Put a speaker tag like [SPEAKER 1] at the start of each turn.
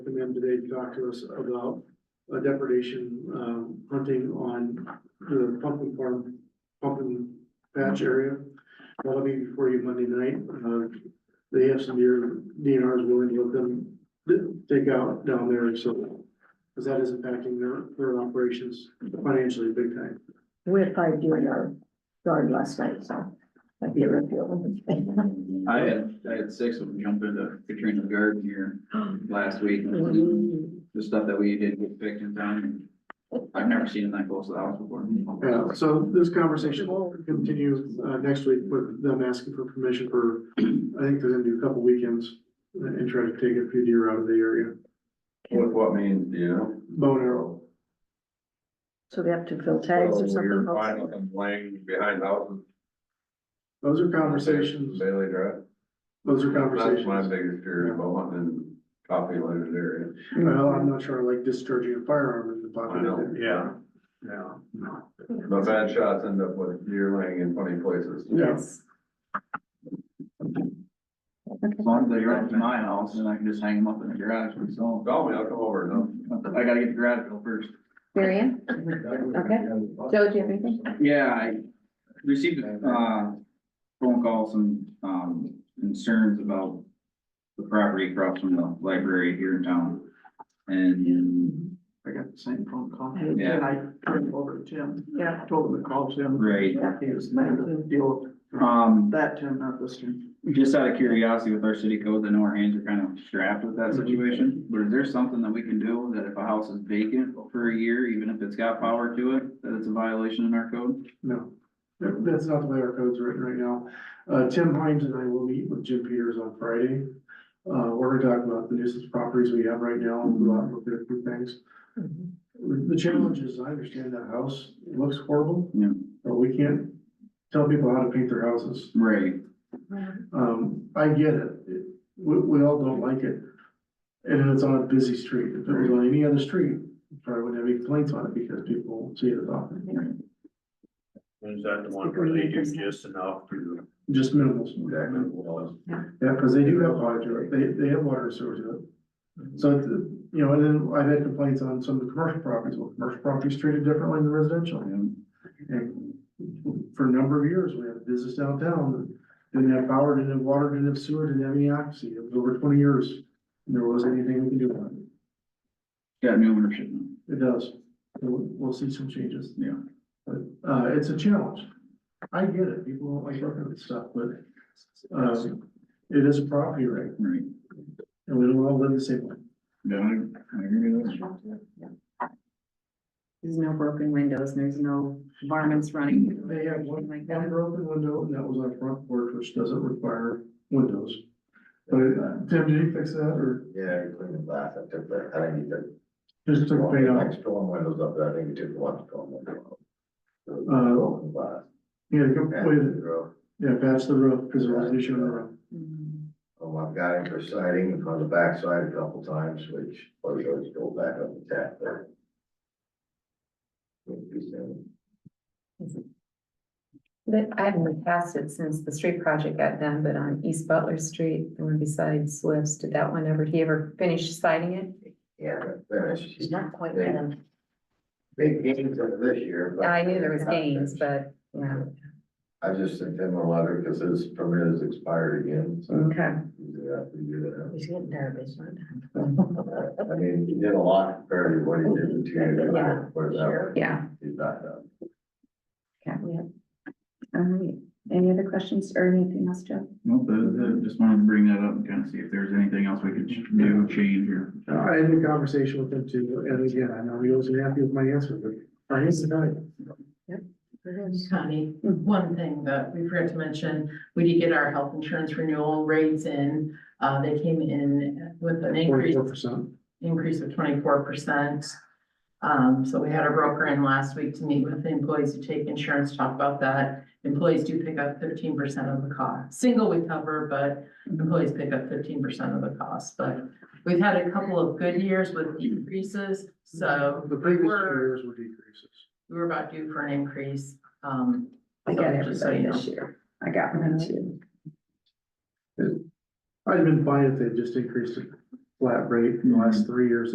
[SPEAKER 1] them today to talk to us about uh, depredation, um, hunting on the pumpkin farm, pumpkin patch area. That'll be before you Monday night. Uh, they have some deer, DNRs willing to let them d- take out down there, so. Cause that is impacting their, their operations financially big time.
[SPEAKER 2] We had five deer in our yard last night, so that'd be a real.
[SPEAKER 3] I had, I had six of them jump into Katrina's garden here last week. The stuff that we did get picked in time. I've never seen them that close to the house before.
[SPEAKER 1] Yeah, so this conversation will continue uh next week with them asking for permission for, I think they're gonna do a couple weekends and try to take a few deer out of the area,
[SPEAKER 4] What, what means, do you know?
[SPEAKER 1] bow and arrow.
[SPEAKER 2] So they have to fill tags or
[SPEAKER 4] So You're finding
[SPEAKER 2] something.
[SPEAKER 4] them laying behind houses.
[SPEAKER 1] Those are conversations,
[SPEAKER 4] Bailey Drive.
[SPEAKER 1] those are
[SPEAKER 4] That's my
[SPEAKER 1] conversations.
[SPEAKER 4] biggest fear, Beaumont and Coffee Land area.
[SPEAKER 1] Well, I'm not sure I like discharging a firearm in the
[SPEAKER 4] I know.
[SPEAKER 1] pocket.
[SPEAKER 4] Yeah.
[SPEAKER 1] Yeah.
[SPEAKER 4] The bad shots end up with deer laying in funny places.
[SPEAKER 1] Yeah,
[SPEAKER 3] As long as they drive to my house, then I can just hang them up in the garage myself.
[SPEAKER 4] Call me, I'll come over and
[SPEAKER 3] I gotta get the garage built first.
[SPEAKER 5] Marion? Okay. Joe, do you have anything?
[SPEAKER 3] Yeah, I received, uh, phone calls and, um, concerns about the property across from the library here in town. And
[SPEAKER 6] I got the same phone call.
[SPEAKER 3] Yeah.
[SPEAKER 6] And I turned it over to Jim.
[SPEAKER 2] Yeah.
[SPEAKER 6] I told him to call Jim.
[SPEAKER 3] Right.
[SPEAKER 6] He was mad at the deal with
[SPEAKER 3] Um,
[SPEAKER 6] that Jim, not this Jim.
[SPEAKER 3] just out of curiosity with our city code, I know our hands are kind of strapped with
[SPEAKER 6] Mhm.
[SPEAKER 3] that situation, but is there something that we can do that if a house is vacant for a year, even if it's got power to it, that it's a violation in our code?
[SPEAKER 1] no, That- that's not the way our code's written right now. Uh, Tim Hines and I will meet with Jim Peters on Friday. Uh, we're gonna talk about the nuisance properties we have right now and we'll look at a few things.
[SPEAKER 2] Mhm.
[SPEAKER 1] The challenge is, I understand that house looks horrible,
[SPEAKER 3] Yeah.
[SPEAKER 1] but we can't tell people how to paint their houses.
[SPEAKER 3] Right.
[SPEAKER 1] Um, I get it. It- We, we all don't like it. And it's on a busy street. If it was on any other street, probably wouldn't have any complaints on it because people see it as often,
[SPEAKER 7] Is that the one where they do just enough to?
[SPEAKER 1] just minimal.
[SPEAKER 4] then.
[SPEAKER 1] Yeah, because they do have water to it, they, they have water and sewer to it. So, it's, uh, you know, and then I've had complaints on some of the commercial properties, well, commercial properties treated differently than residential. And for a number of years, we had business downtown, that didn't have power, didn't have water, didn't have sewer, didn't have any occupancy, it was over twenty years. And there wasn't anything we could do about it,
[SPEAKER 3] Got new ownership now.
[SPEAKER 1] it does, we'll, we'll see some changes.
[SPEAKER 3] Yeah.
[SPEAKER 1] But, uh, it's a challenge, I get it, people don't like working with stuff, but, um, it is a property right,
[SPEAKER 3] Right.
[SPEAKER 1] and we don't all live the same way.
[SPEAKER 3] Yeah, I, I agree with that.
[SPEAKER 5] There's no broken windows, there's no varmints running. through it,
[SPEAKER 1] They have one,
[SPEAKER 5] anything like
[SPEAKER 1] one
[SPEAKER 5] that.
[SPEAKER 1] broken window, and that was on front porch, which doesn't require windows. But, uh, Tim, did you fix that, or
[SPEAKER 8] Yeah, you cleaned the glass, I took that, uh, I think you took.
[SPEAKER 1] just took paint
[SPEAKER 8] the
[SPEAKER 1] off?
[SPEAKER 8] Next storm windows up there, I think you took one storm window.
[SPEAKER 1] Uh,
[SPEAKER 8] Broken glass.
[SPEAKER 1] Yeah, go,
[SPEAKER 8] And
[SPEAKER 1] wait,
[SPEAKER 8] the roof.
[SPEAKER 1] yeah, patch the roof, because there was an issue on the roof.
[SPEAKER 5] Mm.
[SPEAKER 8] Oh, I've got him for siding on the backside a couple times, which, or he always go back up the tap there. Would be seven.
[SPEAKER 5] But I haven't passed it since the street project got done, but on East Butler Street, the one beside Swift's, did that one ever, he ever finish siding it?
[SPEAKER 8] Yeah, but finished.
[SPEAKER 2] She's not quite
[SPEAKER 8] They-
[SPEAKER 2] done.
[SPEAKER 8] Big gains of this year. but-
[SPEAKER 5] I knew there was gains, but, yeah,
[SPEAKER 8] I just sent him a letter because his permit has expired again, so.
[SPEAKER 5] okay.
[SPEAKER 8] Yeah, we do that.
[SPEAKER 2] He's getting there, but he's not done.
[SPEAKER 8] I mean, he did a lot compared to what he did in two years ago, put it that way.
[SPEAKER 5] Yeah.
[SPEAKER 8] He's not done.
[SPEAKER 5] Okay. All right, any other questions or anything else, Joe?
[SPEAKER 3] Nope, that- that- just wanted to bring that up and kind of see if there's anything else we could ch- do, change or.
[SPEAKER 1] Uh, I had a conversation with him too, and again, I know he wasn't happy with my answer, but I guess not.
[SPEAKER 9] Connie, one thing that we forgot to mention, we did get our health insurance renewal rates in. Uh, they came in with an increase,
[SPEAKER 1] Forty-four percent.
[SPEAKER 9] increase of twenty-four percent. Um, so we had our broker in last week to meet with the employees who take insurance, talk about that. Employees do pick up fifteen percent of the cost. Single we cover, but employees pick up fifteen percent of the cost. But we've had a couple of good years with increases, so
[SPEAKER 1] The previous two
[SPEAKER 9] we're-
[SPEAKER 1] years were decreases.
[SPEAKER 9] we were about due for an increase. Um,
[SPEAKER 5] I got
[SPEAKER 9] so just so you
[SPEAKER 5] everybody
[SPEAKER 9] know.
[SPEAKER 5] this year, I got mine too.
[SPEAKER 1] I'd have been fine if they just increased it flat rate in the last three years